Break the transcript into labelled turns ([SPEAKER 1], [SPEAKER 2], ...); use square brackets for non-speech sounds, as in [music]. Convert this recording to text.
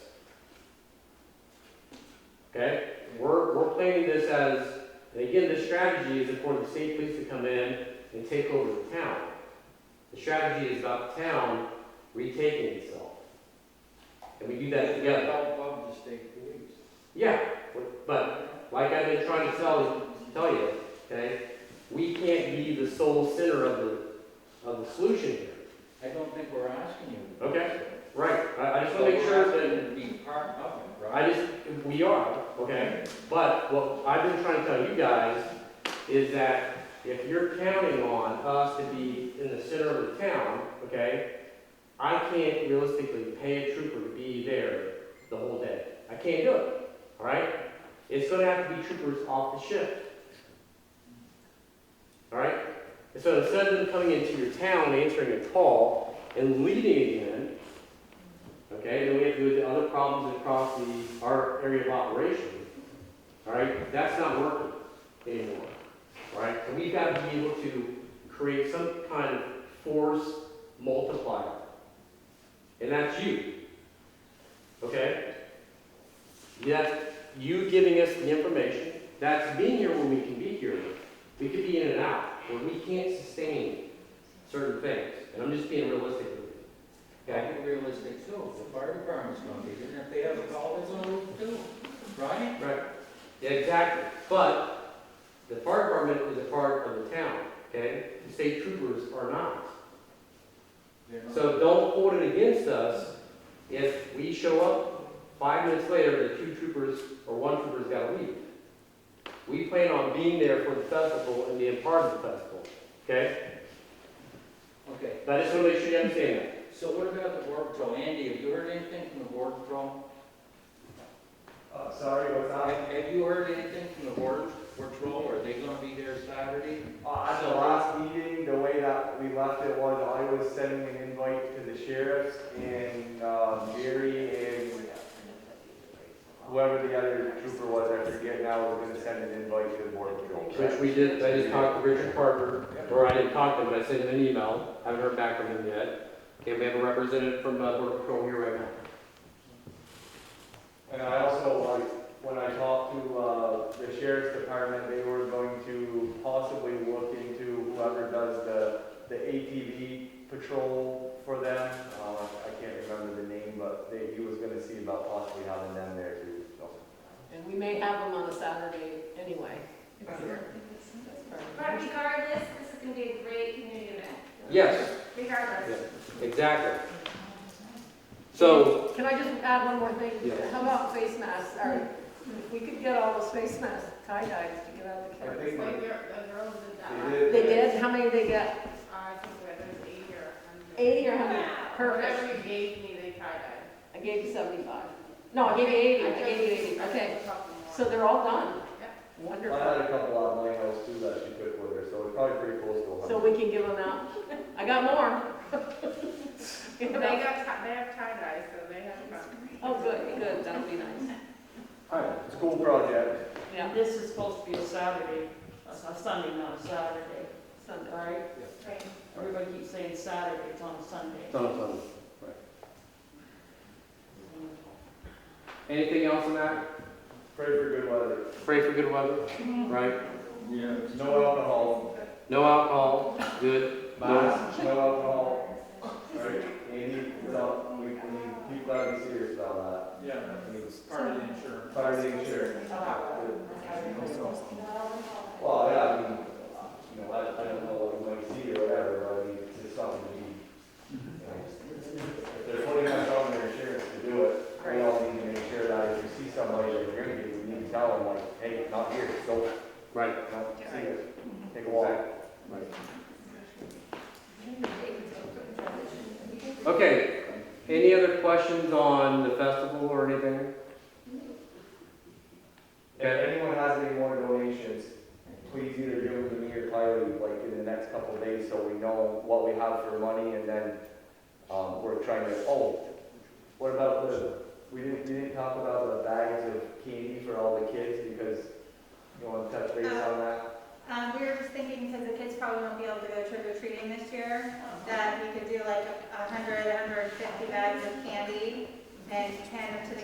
[SPEAKER 1] Okay, we're, we're planning this as, and again, the strategy is for the state police to come in and take over the town. The strategy is about the town retaking itself. And we do that together.
[SPEAKER 2] Help of the state police.
[SPEAKER 1] Yeah, but like I've been trying to tell, tell you, okay, we can't be the sole center of the, of the solution here.
[SPEAKER 2] I don't think we're asking you.
[SPEAKER 1] Okay. Right, I, I just wanna make sure that,
[SPEAKER 2] Be part of it, right?
[SPEAKER 1] I just, we are, okay? But what I've been trying to tell you guys is that if you're counting on us to be in the center of the town, okay? I can't realistically pay a trooper to be there the whole day. I can't do it, all right? It's gonna have to be troopers off the shift. All right? And so instead of them coming into your town, answering a call, and leading again, okay, then we have to do the other problems across the, our area of operation. All right? That's not working anymore. All right? So we've got to be able to create some kind of force multiplier. And that's you. Okay? That's you giving us the information, that's being here when we can be here. We could be in and out, where we can't sustain certain things, and I'm just being realistic with you. Okay?
[SPEAKER 2] Gotta be realistic too, the fire department's gonna be, there, and if they have a call, it's on roof too, right?
[SPEAKER 1] Right. Yeah, exactly, but the fire department is a part of the town, okay? The state troopers are not.
[SPEAKER 2] They're not-
[SPEAKER 1] So don't hold it against us if we show up, five minutes later, the two troopers or one trooper's gotta leave. We plan on being there for the festival and being part of the festival, okay?
[SPEAKER 2] Okay,
[SPEAKER 1] But I just wanna make sure you understand that.
[SPEAKER 2] so what about the border patrol? Andy, have you heard anything from the border patrol?
[SPEAKER 3] Uh, sorry, what's
[SPEAKER 2] Have,
[SPEAKER 3] that?
[SPEAKER 2] have you heard anything from the border patrol? Are they gonna be there Saturday?
[SPEAKER 3] Uh, at the last meeting, the way that we left it was I was sending an invite to the sheriffs and, uh, Gary and whoever the other trooper was, I forget now, was gonna send an invite to the board patrol.
[SPEAKER 1] Which we did, I just talked to Richard Parker, or I didn't talk to him, but I sent him an email, haven't heard back from him yet. Okay, we have a representative from uh, Border Patrol here right now.
[SPEAKER 3] And I also, like, when I talked to, uh, the sheriff's department, they were going to possibly look into whoever does the, the ATV patrol for them. Uh, I can't remember the name, but they, he was gonna see about possibly having them there too, so.
[SPEAKER 4] And we may have them on a Saturday anyway.
[SPEAKER 5] But regardless, this is gonna be a great community event,
[SPEAKER 1] Yes, yeah,
[SPEAKER 5] regardless.
[SPEAKER 1] exactly. So,
[SPEAKER 4] Can I just add one more thing?
[SPEAKER 1] Yeah.
[SPEAKER 4] How about face masks? Or if we could get all those face masks, tie dyes to get out of the
[SPEAKER 3] I
[SPEAKER 4] car.
[SPEAKER 3] think
[SPEAKER 5] Like,
[SPEAKER 3] they-
[SPEAKER 5] your, the girls did
[SPEAKER 3] they
[SPEAKER 5] that. uh,
[SPEAKER 3] did.
[SPEAKER 4] They did? How many they get?
[SPEAKER 5] I think where there's eighty or a hundred.
[SPEAKER 4] 80 or 100? Perfect.
[SPEAKER 5] Whatever you gave me, they tried it.
[SPEAKER 4] I gave you 75. No, I gave you 80. I gave you 80. Okay. So they're all done?
[SPEAKER 5] Yep.
[SPEAKER 3] I had
[SPEAKER 4] Wonderful.
[SPEAKER 3] a couple of mine else too that she put with her, so it's probably pretty close to a
[SPEAKER 4] So
[SPEAKER 3] hundred.
[SPEAKER 4] we can give them out. I got more. [laughs]
[SPEAKER 5] They got, ti- they have tie dye, so they have fun.
[SPEAKER 4] Oh, good, good. That'll be nice.
[SPEAKER 3] Alright, school project.
[SPEAKER 4] Yeah,
[SPEAKER 6] This is supposed to be a Saturday, a a Sunday, not a Saturday,
[SPEAKER 4] Sunday.
[SPEAKER 6] right?
[SPEAKER 5] Right.
[SPEAKER 6] Everybody keeps saying Saturday, it's on a Sunday.
[SPEAKER 1] anything else on that?
[SPEAKER 3] Pray for good weather.
[SPEAKER 1] Pray for good weather, right?
[SPEAKER 2] Yeah.
[SPEAKER 3] No alcohol.
[SPEAKER 1] No alcohol, good, bye.
[SPEAKER 3] No alcohol. Right, Andy, so we, we keep glad to see you uh, about
[SPEAKER 2] Yeah,
[SPEAKER 3] that. We
[SPEAKER 2] part of the insurance.
[SPEAKER 3] Fire the insurance. Well, yeah, I mean, you know, I, I don't know what we might see or whatever, but I mean, it's just something we, you know, if they're putting us on their insurance to do it, we all need to make sure that if you see somebody that you're gonna get, we need to tell them like, hey, not here, go,
[SPEAKER 1] Right,
[SPEAKER 3] no, see you, take a walk.
[SPEAKER 1] okay, any other questions on the festival or anything?
[SPEAKER 3] If anyone has any more donations, please either give them to me or Kylie, like, in the next couple of days, so we know what we have for money, and then, um, we're trying to, oh, what about the, we didn't, we didn't talk about the bags of candy for all the kids, because you wanna touch base on that?
[SPEAKER 5] Um, we were just thinking, because the kids probably won't be able to go trick or treating this year, that we could do like a hundred, a hundred and fifty bags of candy and hand them to the